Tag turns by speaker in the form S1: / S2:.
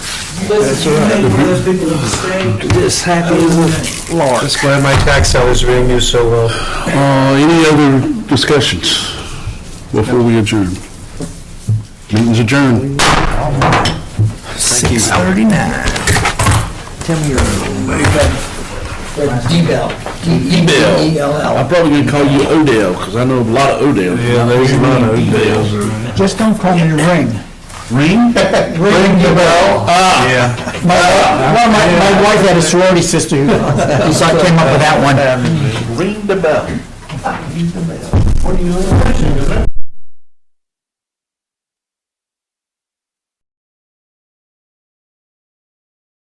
S1: That's all right. This happy as a lark.
S2: Just glad my tax dollars are being used so well.
S3: Uh, Any other discussions before we adjourn? Meeting's adjourned.
S1: Six thirty-nine. Tell me your. D-Bell. D-E-B-E-L-L.
S3: I'm probably gonna call you Odell, because I know a lot of Odells. Yeah, there's a lot of Odells.
S1: Just don't call me Ring.
S3: Ring?
S1: Ring the bell.
S2: Yeah.
S1: My, well, my, my wife had a sorority sister who, so I came up with that one.
S3: Ring the bell.